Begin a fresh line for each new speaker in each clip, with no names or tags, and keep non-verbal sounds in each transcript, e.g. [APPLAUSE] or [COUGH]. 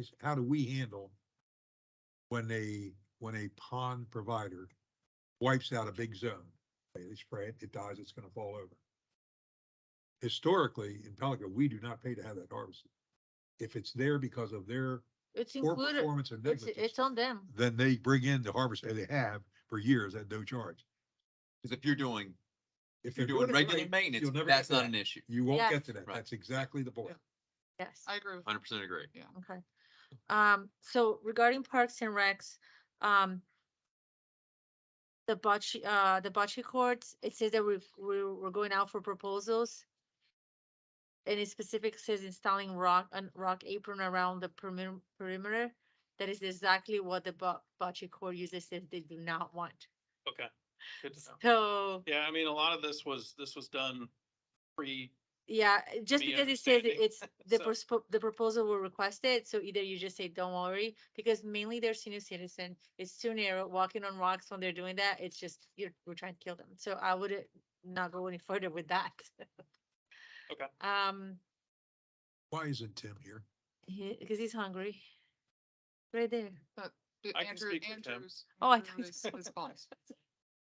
is how do we handle when a, when a pond provider wipes out a big zone? They they spray it, it dies, it's gonna fall over. Historically, in Pelican, we do not pay to have that harvested. If it's there because of their
It's
poor
included,
performance or
it's,
negligence,
it's on them.
then they bring in the harvest, and they have for years at no charge.
Because if you're doing, if you're
they're
doing
it
regular
right,
maintenance,
you'll never
that's
get to
not
that.
an issue.
You won't
Yes.
get to that.
Right.
That's exactly the point.
Yes.
I agree with
Hundred percent agree.
Yeah.
Okay. Um, so regarding parks and recs, um, the bocce, uh, the bocce courts, it says that we've, we're, we're going out for proposals. And it specific says installing rock, and rock apron around the perimeter, perimeter. That is exactly what the bo- bocce court users said they do not want.
Okay. Good to know.
So,
Yeah, I mean, a lot of this was, this was done pre,
yeah, eh, just
Me
because it says
understanding,
it's, the
so-
prospo- the proposal were requested, so either you just say, don't worry, because mainly they're senior citizen, it's too narrow, walking on rocks when they're doing that, it's just, you're, we're trying to kill them, so I would uh, not go any [LAUGHS] further with that.
Okay.
Um,
Why isn't Tim here?
because he's hungry. Right there,
you.
I can
Andrew,
speak for Tim.
Andrew's.
Oh, I
Andrew
thought-
is His boss.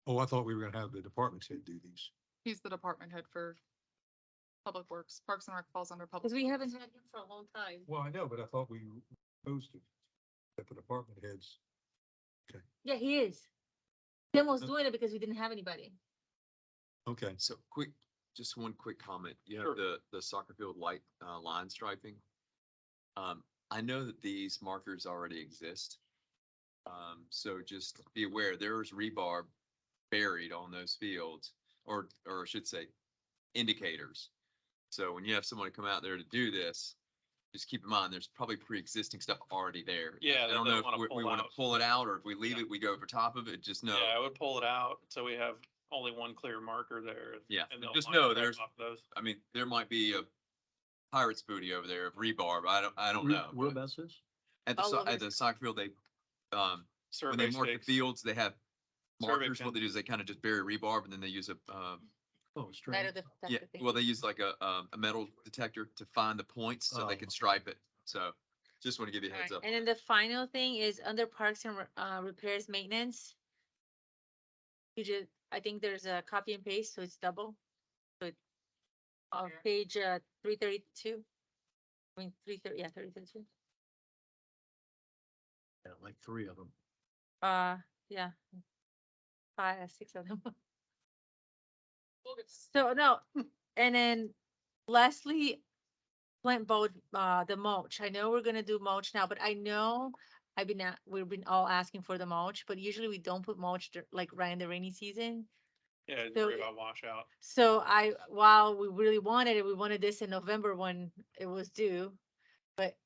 Oh, I thought we were gonna have the department head do these.
He's the department head for Public Works. Parks and Rec falls under Public.
because we
Works.
haven't had him for a long time.
Well, I know, but I thought we posted that the department heads.
Yeah, he is. Tim was
Okay.
doing it because we didn't have anybody.
Okay.
So quick, just one quick comment. You
Sure.
have the, the soccer field light, uh, line striping. Um, I know that these markers already exist. Um, so just be aware, there's rebar buried on those fields, or, or I should say, indicators. So when you have someone come out there to do this, just keep in mind, there's probably pre-existing stuff already there. I-
Yeah,
I
they
don't
don't
know if
wanna
we, we
pull
wanna
out.
pull it out, or if we leave
Yeah.
it, we go over top of it, just know.
yeah, I would pull it out, so we have only one clear marker there. and-
Yeah,
and they'll
just
line it
know
up
there's-
off Those.
I mean, there might be a pirate's booty over there of rebar, but I don't, I don't
Re-
know.
What
Oh, but
about this?
At the,
All
so-
over
at the soccer field, they, um, when
Survey
they mark the
stakes.
fields, they have
Survey
markers.
pen.
What they do is they kind of just bury rebar, and then they use a, um,
Oh,
That
strange.
are the- that's
yeah,
the thing.
well, they use like a, um, a metal detector to find the points so they
Oh.
can stripe it. So just want to give you a
Alright,
heads up.
And then the final thing is under parks and Re- uh, repairs, maintenance. You just, I think there's a copy and paste, so it's double. So it-
Oh,
on
yeah.
page uh, three thirty-two. I mean, three thirty, yeah, thirty thirty-two.
Yeah, Like three of them.
Uh, yeah. Five, six of them. [LAUGHS]
We'll get s-
So no, and then lastly, plant both, uh, the mulch. I know we're gonna do mulch now, but I know I've been, a- we've been all asking for the mulch, but usually we don't put mulch dur- like right in the rainy season.
Yeah,
so
worry
it-
about washout.
So I, while we really wanted it, we wanted this in November when it was due. But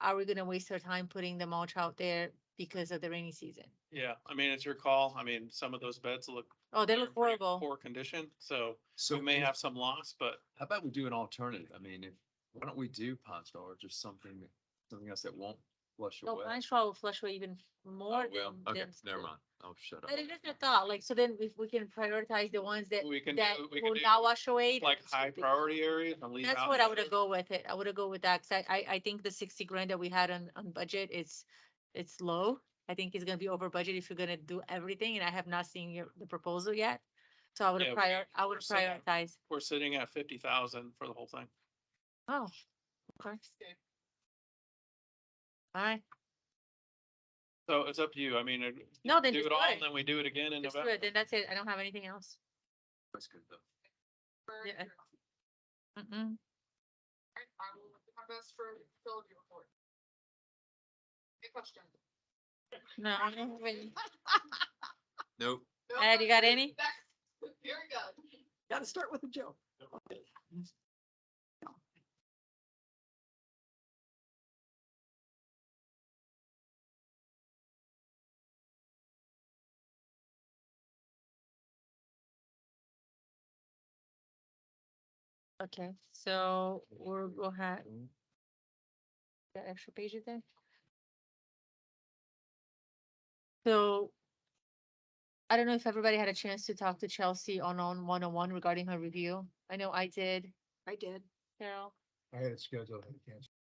are we gonna waste our time putting the mulch out there because of the rainy season?
Yeah, I mean, it's your call. I mean, some of those beds look.
Oh, they
they're
look
in pretty
horrible.
Poor condition, so
So
we may have some loss, but
How about we do an alternative? I mean, if, why don't we do Pond Star or just something, something else that won't flush
No,
away?
Oh, pine straw will flush away even
Oh,
more.
well,
than-
okay,
than
never
the-
mind. I'll shut up.
But it is a thought, like, so then if we can prioritize the ones that,
we can, do
that
we can
will
do
not wash away.
like
that's
high
what we-
priority areas and leave out.
That's what I
the
would have
others.
go with it. I would have go with that, cause I, I, I think the sixty grand that we had on, on budget, it's, it's low. I think it's gonna be over budget if you're gonna do everything, and I have not seen your, the proposal yet. So I would
Yeah,
have
we-
prior, I would
we're sitting at-
prioritize,
We're sitting at fifty thousand for the whole thing.
oh, okay.
Okay.
Alright,
So it's up to you. I mean, uh,
No, then
Do
just
it
do
all,
it.
and then we do it again in
just do
November.
it, then that's it. I don't have anything else.
That's good though.
Very
Yeah.
good.
Mm-mm.
All right, I will do my best for Philip your report. Good question.
No, I don't have any.
Nope.
No
Ed, you got
question. [LAUGHS]
any?
That's- Very good.
Gotta start with a joke.
Okay, so we're, we'll have. The extra pages there. So. I don't know if everybody had a chance to talk to Chelsea on, on oh one-on-one regarding her review. I know I did,
I did.
Carol.
I had it scheduled, I had to cancel.